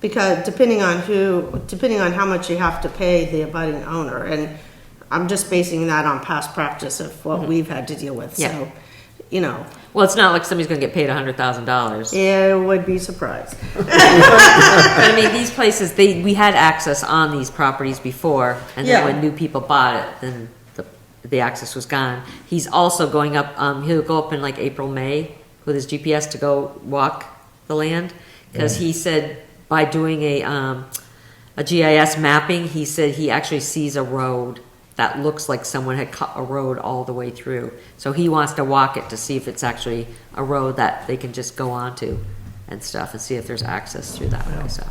Because depending on who, depending on how much you have to pay the abutting owner, and I'm just basing that on past practice of what we've had to deal with, Mm-hmm. Yeah. so, you know, Well, it's not like somebody's going to get paid hundred thousand dollars. yeah, would be surprised. I mean, these places they we had access on these properties before, and then Yeah. when new people bought it, then the the access was gone. He's also going up. Um, he'll go up in like April, May with his GPS to go walk the land because he said by doing a um, a GIS mapping, he said he actually sees a road that looks like someone had cut a road all the way through. So he wants to walk it to see if it's actually a road that they can just go onto and stuff and see if there's access through that way. So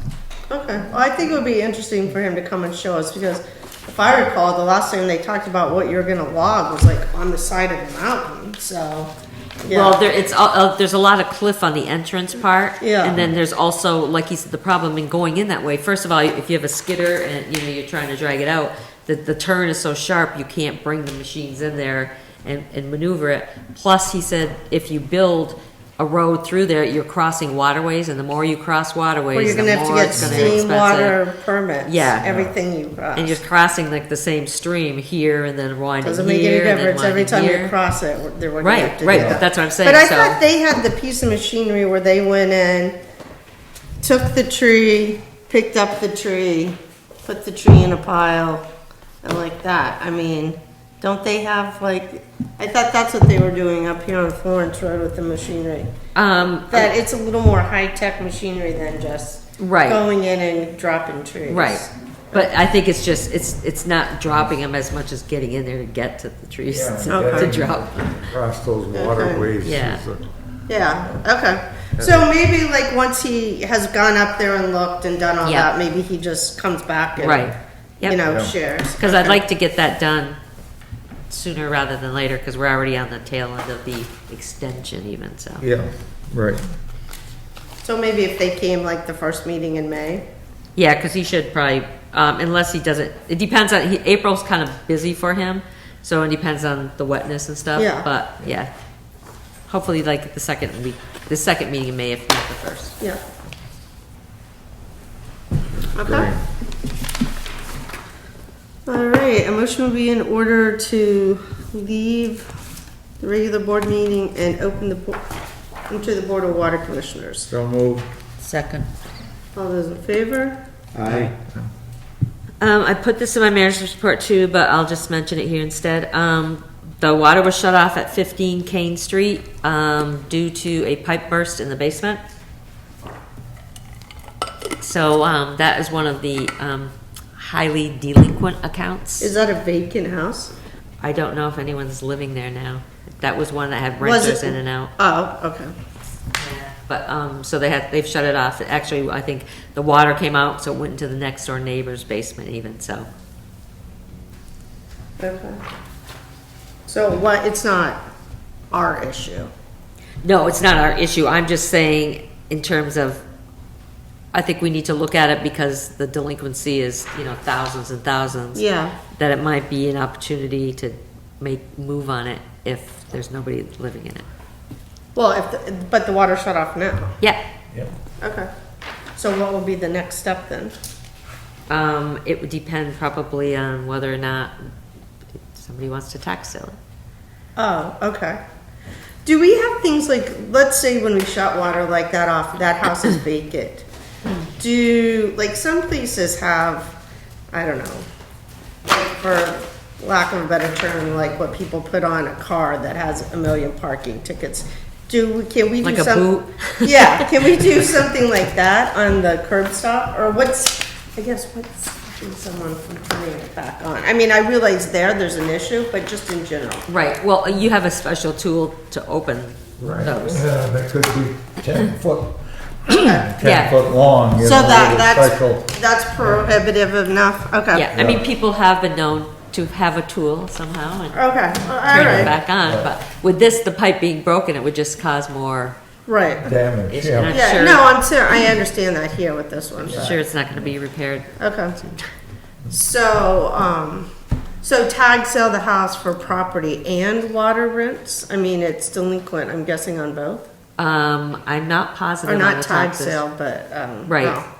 Okay, well, I think it would be interesting for him to come and show us, because if I recall, the last thing they talked about what you're gonna log was like on the side of the mountain, so. Well, yeah. there, it's, all- uh, there's a lot of cliff on the entrance part. Yeah. And then there's also, like you said, the problem in going in that way. First of all, if you have a skidder and, you know, you're trying to drag it out, the, the turn is so sharp, you can't bring the machines in there and, and maneuver it. Plus, he said, if you build a road through there, you're crossing waterways, and the more you cross Well, you're waterways, the gonna have to more get it's gonna be steam, expensive. water, permits, Yeah. everything you cross. And you're crossing like the same stream here and then winding Doesn't make any here and then difference, every winding time you here. cross it, they're gonna have Right, to do right, that. but that's what I'm saying, But I so. thought they had the piece of machinery where they went in, took the tree, picked up the tree, put the tree in a pile, and like that. I mean, don't they have like, I thought that's what they were doing up here on Florence Road with the machinery. Um, That it's a little more high-tech machinery than just Right. going in and dropping trees. Right. But I think it's just, it's, it's not dropping them as much as getting in there to get to the trees Yeah, to to okay. drop. Across those waterways. Yeah. is a- Yeah, okay. So maybe like once he has gone up there and looked and done all Yeah. that, maybe he just comes back and Right. you Yep. know Yeah. shares. Because I'd like to get that done sooner rather than later because we're already on the tail end of the extension even, so. Yeah, right. So maybe if they came like the first meeting in May. Yeah, because he should probably, um, unless he doesn't, it depends on, he, April's kind of busy for him, so it depends on the wetness and stuff. Yeah. But, yeah. Hopefully like the second week, the second meeting in May, if not the first. Yeah. Great. Okay. All right. A motion will be in order to leave the regular board meeting and open the bo- into the board of water commissioners. So moved. Second. All those in favor? Aye. Um, I put this in my manager's report too, but I'll just mention it here instead. Um, the water was shut off at 15 Kane Street um, due to a pipe burst in the basement. So um, that is one of the um, highly delinquent accounts. Is that a vacant house? I don't know if anyone's living there now. That was one that had Was renters it- in and out. Oh, okay. But, um, so they had, they've shut it off. Actually, I think the water came out, so it went into the next door neighbor's basement even, so. Okay. So what, it's not our issue. No, it's not our issue. I'm just saying in terms of, I think we need to look at it because the delinquency is, you know, thousands and thousands. Yeah. That it might be an opportunity to make, move on it if there's nobody living in it. Well, if, the- but the water shut off now. Yeah, Okay. So what will be the next step then? um, it would depend probably on whether or not somebody wants to tax sale it. Oh, okay. Do we have things like, let's say when we shut water like that off, that house is vacant. Do, like, some places have, I don't know, like, for lack of a better term, like what people put on a car that has a million parking tickets. Do, we can we do Like a some? boot? Yeah, can we do something like that on the curb stop? Or what's, I guess, what's stopping someone from turning it back on? I mean, I realize there, there's an issue, but just in general. Right, well, you have a special tool to open Right. those. Yeah, that could be ten foot, Yeah. ten foot long. you So know, that, with a special- that's, that's prohibitive enough, okay. Yeah, I mean, people have been known to have a tool somehow and Okay, all turn it right, back on, but with this, the pipe being broken, it would just cause more, right. Damage, It's yeah. not- Yeah, Sure. no, I'm sure, I understand that here with this one, but- sure, it's not gonna be repaired. okay. So, um, so tag sell the house for property and water rents? I mean, it's delinquent, I'm guessing on both? Um, I'm not Or positive on the not tag taxes. sale, but, um. Right, no.